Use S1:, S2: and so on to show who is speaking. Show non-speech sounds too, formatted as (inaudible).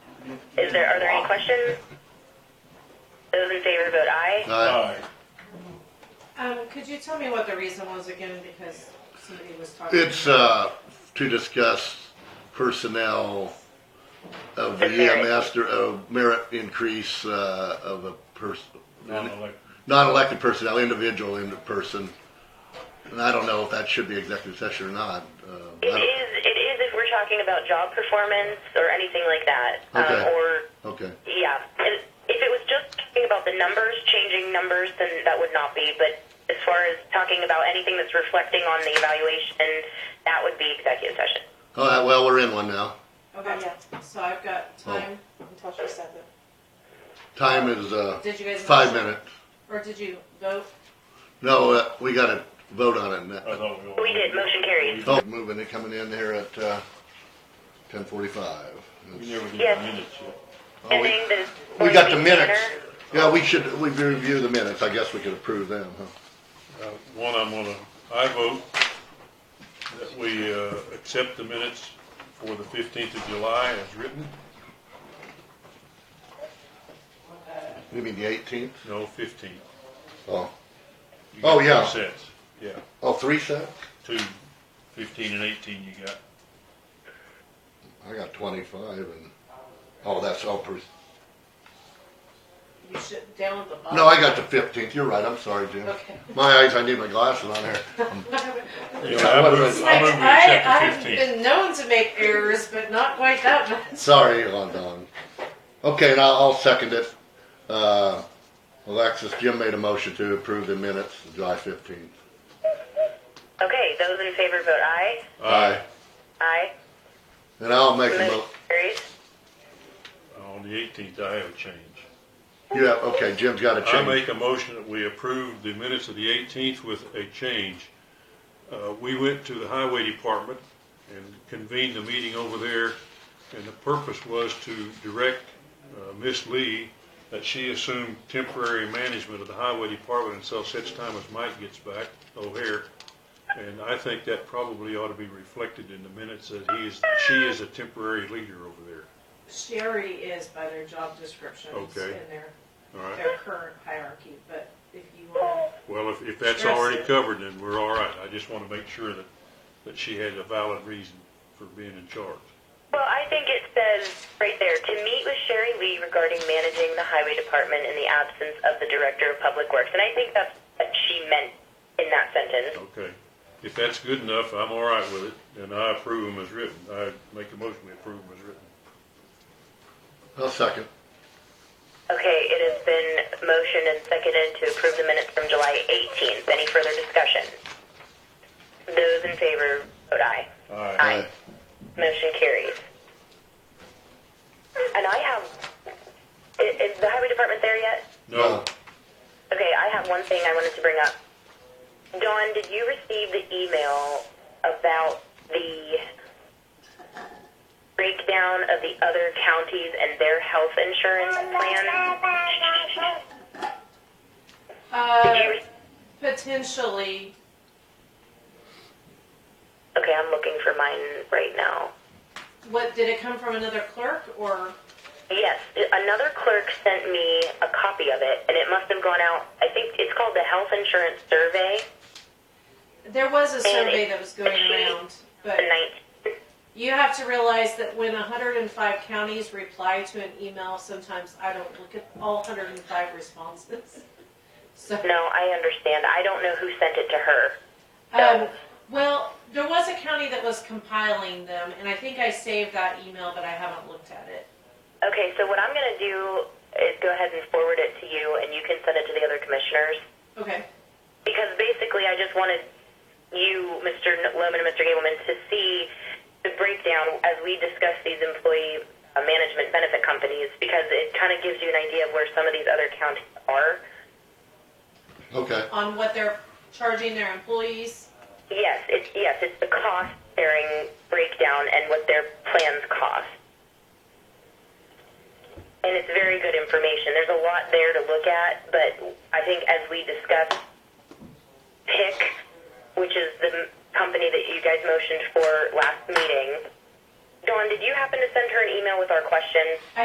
S1: Is there, are there any questions? Those in favor vote aye.
S2: Aye.
S3: Um, could you tell me what the reason was again, because somebody was talking?
S2: It's, uh, to discuss personnel of the
S1: The merit.
S2: EMS, der- of merit increase, uh, of a person,
S4: Non-elected.
S2: non-elected personnel, individual in person. And I don't know if that should be executive session or not. Uh, I
S1: It
S2: don't-
S1: is, it is if we're talking about job performance or anything like that. Um,
S2: Okay.
S1: Or,
S2: Okay,
S1: yeah, if if it was just talking about the numbers, changing numbers, then that would not be. But as far as talking about anything that's reflecting on the evaluation, that would be executive session.
S2: all right, well, we're in one now.
S3: Okay, so I've got
S4: Oh.
S3: time until she said that.
S2: Time is, uh,
S3: Did you guys?
S2: five minutes.
S3: Or did you vote?
S2: No, uh, we gotta vote on it
S4: I
S2: now.
S4: thought we.
S1: We did, motion carries.
S2: Oh, moving it, coming in here at, uh, ten forty-five.
S4: We never did
S1: Yes.
S4: the minutes yet.
S1: And then the.
S2: Oh, We got the
S1: board
S2: minutes.
S1: meeting minor-
S2: Yeah, we should, we review the minutes. I guess we could approve them, huh?
S4: Uh, One, I'm gonna, I vote that we, uh, accept the minutes for the fifteenth of July as written.
S2: You mean the eighteenth?
S4: No, fifteen.
S2: Oh,
S4: You got
S2: Oh, yeah.
S4: Two sets, yeah,
S2: oh, three sets?
S4: two, fifteen and eighteen you got.
S2: I got twenty-five and, oh, that's all per,
S3: You should, down at the bottom.
S2: no, I got the fifteenth. You're right. I'm sorry, Jim.
S3: Okay.
S2: My eyes, I need my glasses on here.
S4: Yeah, I
S2: what
S4: move,
S2: was-
S4: I
S3: Like,
S4: move we
S3: I,
S4: accept
S3: I've
S4: the fifteenth.
S3: been known to make errors, but not quite that
S2: (laughs)
S3: much.
S2: Sorry, Lon Don. Okay, and I'll, I'll second it. Uh, Alexis, Jim made a motion to approve the minutes, July fifteenth.
S1: Okay, those in favor vote aye.
S4: Aye,
S1: Aye.
S2: And I'll make a
S1: Motion
S2: mo,
S1: carries.
S4: on the eighteenth, I have a change.
S2: yeah, okay, Jim's got a
S4: I
S2: change.
S4: make a motion that we approve the minutes of the eighteenth with a change. Uh, we went to the highway department and convened the meeting over there, and the purpose was to direct, uh, Ms. Lee that she assume temporary management of the highway department until such time as Mike gets back, O'Hare. And I think that probably ought to be reflected in the minutes that he is, she is a temporary leader over there,
S3: Sherry is by their job descriptions
S4: Okay.
S3: in their,
S4: all right?
S3: their current hierarchy, but if you want,
S4: Well, if, if that's
S3: Stress
S4: already
S3: it.
S4: covered, then we're all right. I just want to make sure that, that she had a valid reason for being in charge.
S1: Well, I think it says right there, to meet with Sherry Lee regarding managing the highway department in the absence of the director of public works. And I think that's what she meant in that sentence.
S4: Okay. If that's good enough, I'm all right with it, and I approve them as written. I make a motion we approve them as written.
S2: I'll second.
S1: Okay, it has been motioned and seconded to approve the minutes from July 18th. Any further discussion? Those in favor, vote aye.
S4: Aye.
S1: Aye. Motion carries. And I have, i- is the highway department there yet?
S4: No,
S1: Okay, I have one thing I wanted to bring up. Dawn, did you receive the email about the breakdown of the other counties and their health insurance plans? Did
S3: uh,
S1: you re-
S3: potentially,
S1: Okay, I'm looking for mine right now.
S3: what, did it come from another clerk or?
S1: Yes, another clerk sent me a copy of it, and it must have gone out. I think it's called the Health Insurance Survey,
S3: There was a survey that was going around, but
S1: the 19th.
S3: you have to realize that when 105 counties reply to an email, sometimes I don't look at all 105 responses. (laughs) So,
S1: No, I understand. I don't know who sent it to her.
S3: um, well, there was a county that was compiling them, and I think I saved that email, but I haven't looked at it.
S1: Okay, so what I'm going to do is go ahead and forward it to you, and you can send it to the other commissioners.
S3: Okay.
S1: Because basically, I just wanted you, Mr. Lohman and Mr. Gableman, to see the breakdown as we discuss these employee uh, management benefit companies, because it kind of gives you an idea of where some of these other counties are.
S2: Uh, Okay,
S3: on what they're charging their employees.
S1: Yes, it's yes, it's the cost sharing breakdown and what their plans cost. And it's very good information. There's a lot there to look at, but I think as we discussed, PIC, which is the m- company that you guys motioned for last meeting, Dawn, did you happen to send her an email with our question?